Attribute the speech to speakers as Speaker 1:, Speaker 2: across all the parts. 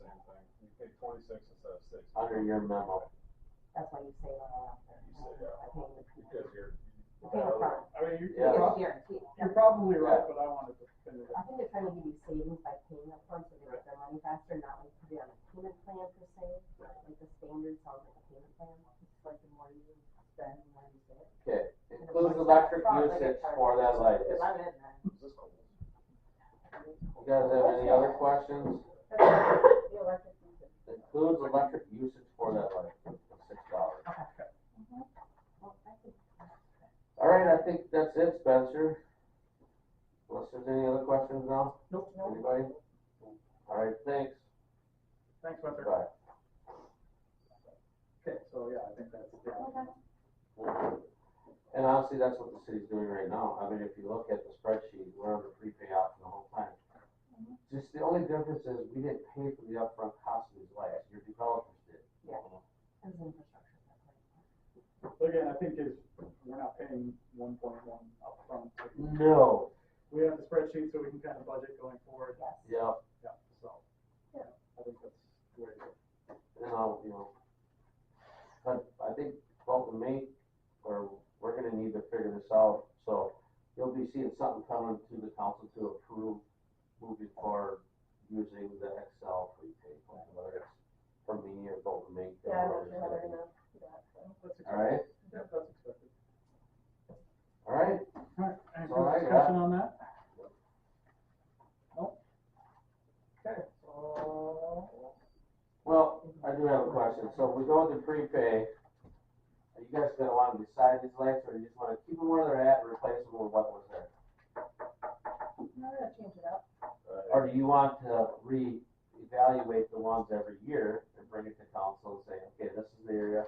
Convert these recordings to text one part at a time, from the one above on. Speaker 1: thing. You pay twenty-six instead of six.
Speaker 2: under your memo.
Speaker 3: That's why you say that after.
Speaker 1: You say that.
Speaker 3: I think the
Speaker 1: Because you're.
Speaker 3: The pay upfront,
Speaker 4: I mean, you-
Speaker 2: Yeah.
Speaker 4: you're,
Speaker 3: it's
Speaker 4: prob-
Speaker 3: guaranteed.
Speaker 4: you're probably right, but I wanted to finish it.
Speaker 3: I think they're trying to give you savings by paying upfront so they get their money faster, not like put it on a payment plan per se. Like the standard sounds like a payment plan, it's like the more you spend, the more you save.
Speaker 2: Okay, includes electric usage for that light.
Speaker 3: Cause I'm in that.
Speaker 2: You guys have any other questions?
Speaker 3: The electric usage.
Speaker 2: Includes electric usage for that light, six dollars.
Speaker 3: Well, I think
Speaker 2: All right, I think that's it, Spencer. Unless there's any other questions now?
Speaker 4: Nope.
Speaker 2: Anybody? All right, thanks.
Speaker 4: Thanks, Spencer.
Speaker 2: Bye.
Speaker 4: Okay, so yeah, I think that's, yeah.
Speaker 2: And honestly, that's what the city's doing right now. I mean, if you look at the spreadsheet, we're under free payout for the whole plan. Just the only difference is we didn't pay for the upfront cost of these lights. Your developers did.
Speaker 3: it's infrastructure.
Speaker 4: But again, I think is, we're not paying one point one upfront.
Speaker 2: No.
Speaker 4: We have the spreadsheet so we can kind of budget going forward,
Speaker 3: Yes.
Speaker 2: Yep.
Speaker 4: yeah, so. Yeah. I think that's the way to go.
Speaker 2: you know, you know. But I think both of me, or we're gonna need to figure this out, so you'll be seeing something coming to the council to approve moving forward using the Excel prepaid plan, whether it's for me or both of me. whoever it's gonna be.
Speaker 4: That's
Speaker 2: All right,
Speaker 4: expected. Yeah, that's expected.
Speaker 2: all right,
Speaker 4: All right, any
Speaker 2: That's all I
Speaker 4: further
Speaker 2: got.
Speaker 4: discussion on that? Nope. Okay, so,
Speaker 2: well, I do have a question, so if we go with the prepay, are you guys gonna wanna decide these lights, or you just wanna keep them where they're at and replace them with what was there?
Speaker 3: No, they're gonna change it up.
Speaker 1: Right.
Speaker 2: Or do you want to re-evaluate the ones every year and bring it to council and say, okay, this is the area,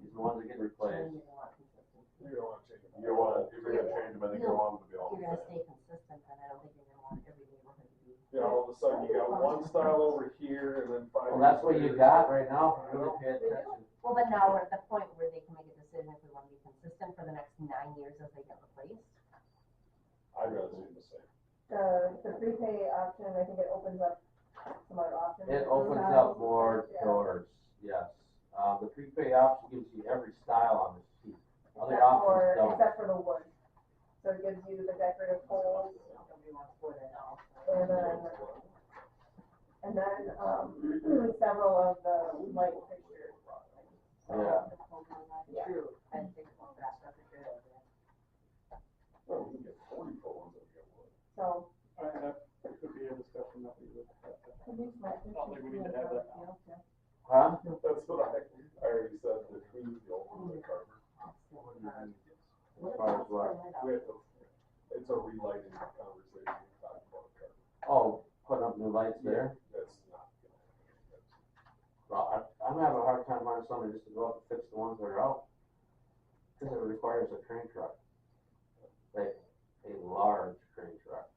Speaker 2: these are the ones that get replaced?
Speaker 3: Change it a lot consistent.
Speaker 1: You don't wanna change them. You wanna, if you're gonna change them, I think you want them to be all the
Speaker 3: If you're gonna
Speaker 1: same.
Speaker 3: stay consistent, then I don't think you're gonna want every neighborhood to be.
Speaker 1: You know, all of a sudden you got one style over here and then five.
Speaker 2: Well, that's what you
Speaker 1: years
Speaker 2: got right now, if you really pay attention.
Speaker 3: Well, but now we're at the point where they can make a decision if we wanna be consistent for the next nine years as they get replaced.
Speaker 1: later. I'd rather do the same.
Speaker 5: The, the prepay option, I think it opens up some other options.
Speaker 2: It opens up more doors, yes. Uh, the prepaid option gives you every style on the sheet. Other
Speaker 5: Except for-
Speaker 2: options don't.
Speaker 5: Except for the wood. So it gives you the decorative poles
Speaker 3: Nobody wants um, wood at all.
Speaker 5: and then, and then, um, several of the light fixtures.
Speaker 2: Yeah,
Speaker 5: Yeah.
Speaker 3: True, I think that's a good idea.
Speaker 1: Well, we can get forty phones if we get one.
Speaker 5: So,
Speaker 4: all right, that could be a discussion that we would have to.
Speaker 5: I think my-
Speaker 4: I don't think we need to have that now.
Speaker 2: huh?
Speaker 1: That's what I, I already said, that we need the old one, the Carver.
Speaker 2: As far as what?
Speaker 1: We have to, it's a relighting conversation, we talked about Carver.
Speaker 2: Oh, putting up new lights there?
Speaker 1: That's not gonna happen.
Speaker 2: Well, I, I'm having a hard time finding somebody just to go up and fix the ones that are out. Cause it requires a crane truck. Like, a large crane truck.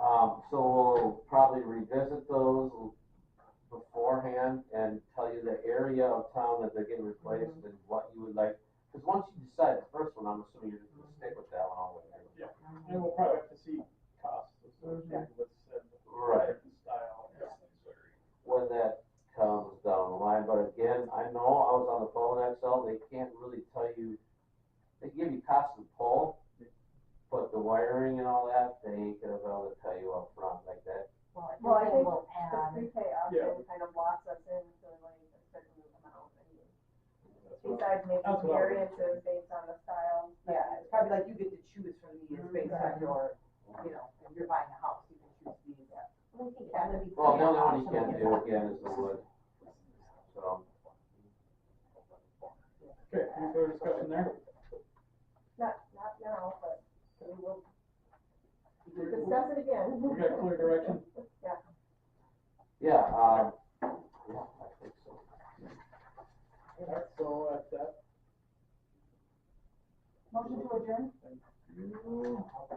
Speaker 2: Um, so we'll probably revisit those beforehand and tell you the area of town that they're getting replaced and what you would like. Cause once you decide the first one, I'm assuming you're just gonna stick with that one all the way through.
Speaker 4: And we'll probably have to see costs associated with said.
Speaker 2: Right.
Speaker 4: different Style.
Speaker 1: That's very.
Speaker 2: when that comes down the line. But again, I know I was on the phone with XL, they can't really tell you, they give you cost of pole, but the wiring and all that, they ain't gonna be able to tell you up front like that.
Speaker 3: Well, I think we'll
Speaker 5: The
Speaker 3: add,
Speaker 5: prepay
Speaker 4: Yeah.
Speaker 5: option kind of locks us in to like a certain amount.
Speaker 4: That's what I-
Speaker 5: Besides making
Speaker 4: That's what I would-
Speaker 5: variances based on the style.
Speaker 6: Yeah, it's probably like you get to choose from these based on your, you know, if you're buying a house, you can choose these.
Speaker 3: we think that would be.
Speaker 2: Well, the only one you can do again is the wood, so.
Speaker 4: Okay, any further discussion there?
Speaker 5: Not, not now, but we will
Speaker 4: We
Speaker 5: discuss it again.
Speaker 4: got clear direction?
Speaker 2: Yeah, um, yeah, I think so.
Speaker 4: All right, so at that,
Speaker 3: Motion to adjourn?